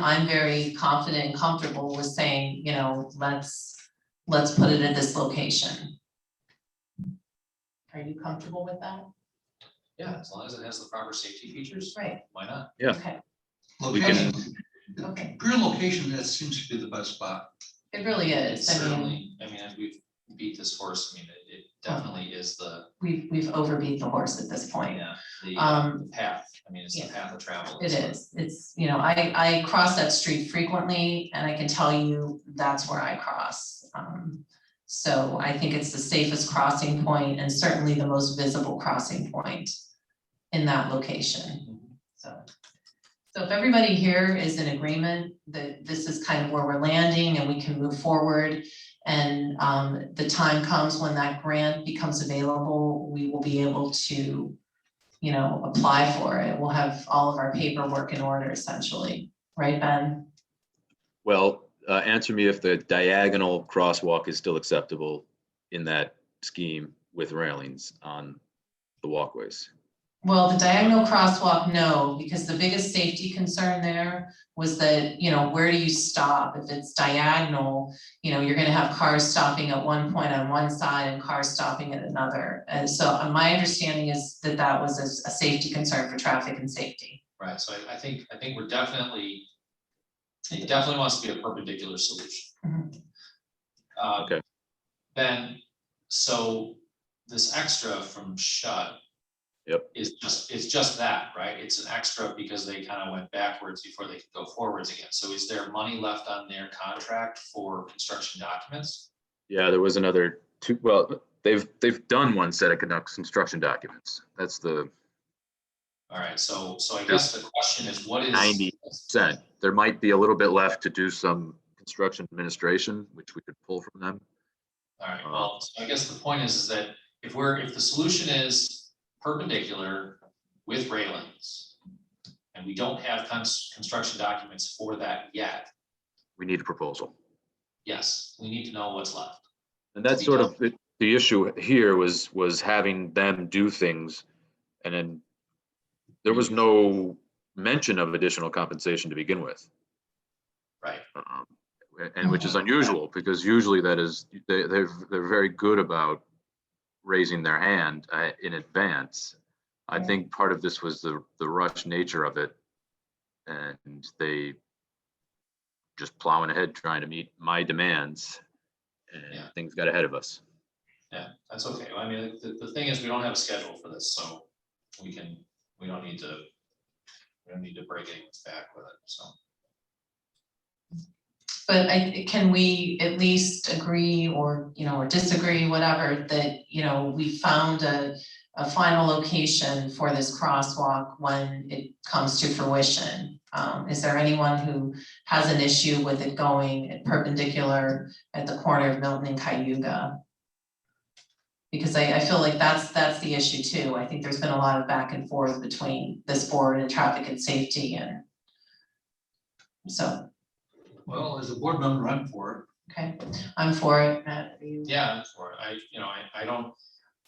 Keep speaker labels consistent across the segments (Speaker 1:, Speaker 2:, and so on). Speaker 1: I'm very confident and comfortable with saying, you know, let's, let's put it at this location. Are you comfortable with that?
Speaker 2: Yeah, as long as it has the proper safety features,
Speaker 1: Right,
Speaker 2: why not?
Speaker 3: Yeah.
Speaker 1: okay,
Speaker 3: We can-
Speaker 4: Location,
Speaker 1: okay,
Speaker 4: pure location, that seems to be the best spot.
Speaker 1: it really
Speaker 2: It's
Speaker 1: is, I mean,
Speaker 2: certainly, I mean, as we've beat this horse, I mean, it, it definitely is the,
Speaker 1: we've, we've overbeat the horse at this point.
Speaker 2: yeah, the uh,
Speaker 1: Um,
Speaker 2: the path, I mean, it's the
Speaker 1: yeah.
Speaker 2: path of travel.
Speaker 1: It
Speaker 2: so
Speaker 1: is, it's, you know, I, I cross that street frequently and I can tell you that's where I cross. Um, So I think it's the safest crossing point and certainly the most visible crossing point in that location. So, so if everybody here is in agreement that this is kind of where we're landing and we can move forward. And um, the time comes when that grant becomes available, we will be able to you know, apply for it. We'll have all of our paperwork in order essentially, right, Ben?
Speaker 3: Well, uh, answer me if the diagonal crosswalk is still acceptable in that scheme with railings on the walkways.
Speaker 1: Well, the diagonal crosswalk, no, because the biggest safety concern there was that, you know, where do you stop? If it's diagonal, you know, you're gonna have cars stopping at one point on one side and cars stopping at another. And so uh, my understanding is that that was a, s- a safety concern for traffic and safety.
Speaker 2: Right, so I, I think, I think we're definitely, it definitely wants to be a perpendicular solution.
Speaker 1: Mhm.
Speaker 2: Uh,
Speaker 3: Okay.
Speaker 2: Ben, so this extra from shut.
Speaker 3: Yep.
Speaker 2: Is just, it's just that, right? It's an extra because they kind of went backwards before they could go forwards again. So is there money left on their contract for construction documents?
Speaker 3: Yeah, there was another two, well, they've, they've done one set of conduct- construction documents. That's the
Speaker 2: All right, so, so I guess the question is, what is?
Speaker 3: 90%. There might be a little bit left to do some construction administration, which we could pull from them.
Speaker 2: All right,
Speaker 3: Uh,
Speaker 2: well, so I guess the point is, is that if we're, if the solution is perpendicular with railings. And we don't have cons- construction documents for that yet,
Speaker 3: We need a proposal.
Speaker 2: yes, we need to know what's left.
Speaker 3: And that's
Speaker 2: be
Speaker 3: sort of the, the issue here was, was having them do things and then there was no mention of additional compensation to begin with.
Speaker 2: Right.
Speaker 3: Um, And which is unusual because usually that is, they, they're, they're very good about raising their hand uh, in advance. I
Speaker 1: Right.
Speaker 3: think part of this was the, the rush nature of it. And they just plowing ahead, trying to meet my demands. And
Speaker 2: Yeah.
Speaker 3: things got ahead of us.
Speaker 2: Yeah, that's okay, I mean, the, the thing is, we don't have a schedule for this, so we can, we don't need to. We don't need to break anyone's back with it, so.
Speaker 1: But I, can we at least agree or, you know, or disagree, whatever, that, you know, we found a, a final location for this crosswalk when it comes to fruition? Um, is there anyone who has an issue with it going perpendicular at the corner of Milton and Cayuga? Because I, I feel like that's, that's the issue too. I think there's been a lot of back and forth between this board and traffic and safety and so,
Speaker 4: Well, as a board member, I'm for it.
Speaker 1: okay, I'm for it, Matt, are you?
Speaker 2: Yeah, I'm for it. I, you know, I, I don't,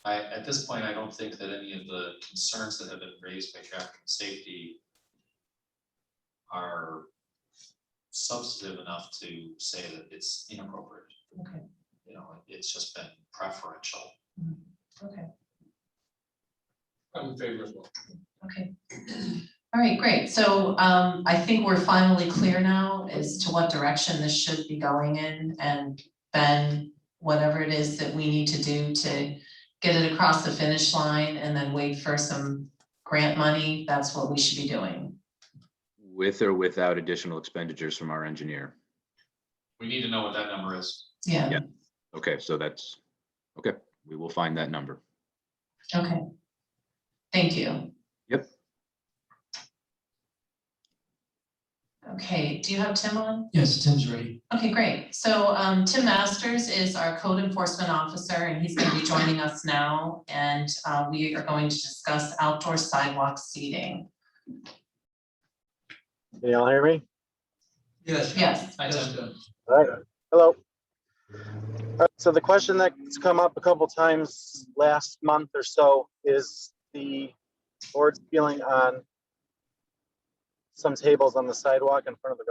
Speaker 2: I, at this point, I don't think that any of the concerns that have been raised by traffic and safety are substantive enough to say that it's inappropriate.
Speaker 1: Okay.
Speaker 2: You know, it's just been preferential.
Speaker 1: Okay,
Speaker 2: I'm favorable.
Speaker 1: okay. All right, great. So um I think we're finally clear now as to what direction this should be going in and then whatever it is that we need to do to get it across the finish line and then wait for some grant money, that's what we should be doing.
Speaker 3: With or without additional expenditures from our engineer.
Speaker 2: We need to know what that number is.
Speaker 1: Yeah,
Speaker 3: Yeah. Okay, so that's, okay, we will find that number.
Speaker 1: okay. Thank you.
Speaker 3: Yep.
Speaker 1: Okay, do you have Tim on?
Speaker 5: Yes, Tim's ready.
Speaker 1: Okay, great. So um, Tim Masters is our code enforcement officer, and he's going to be joining us now. And uh, we are going to discuss outdoor sidewalk seating.
Speaker 6: Can y'all hear me?
Speaker 4: Yes.
Speaker 1: Yes,
Speaker 2: Hi,
Speaker 4: yes,
Speaker 2: Tim.
Speaker 4: uh,
Speaker 6: All right. Hello. All right, So the question that's come up a couple times last month or so is the board's feeling on some tables on the sidewalk in front of the restaurant.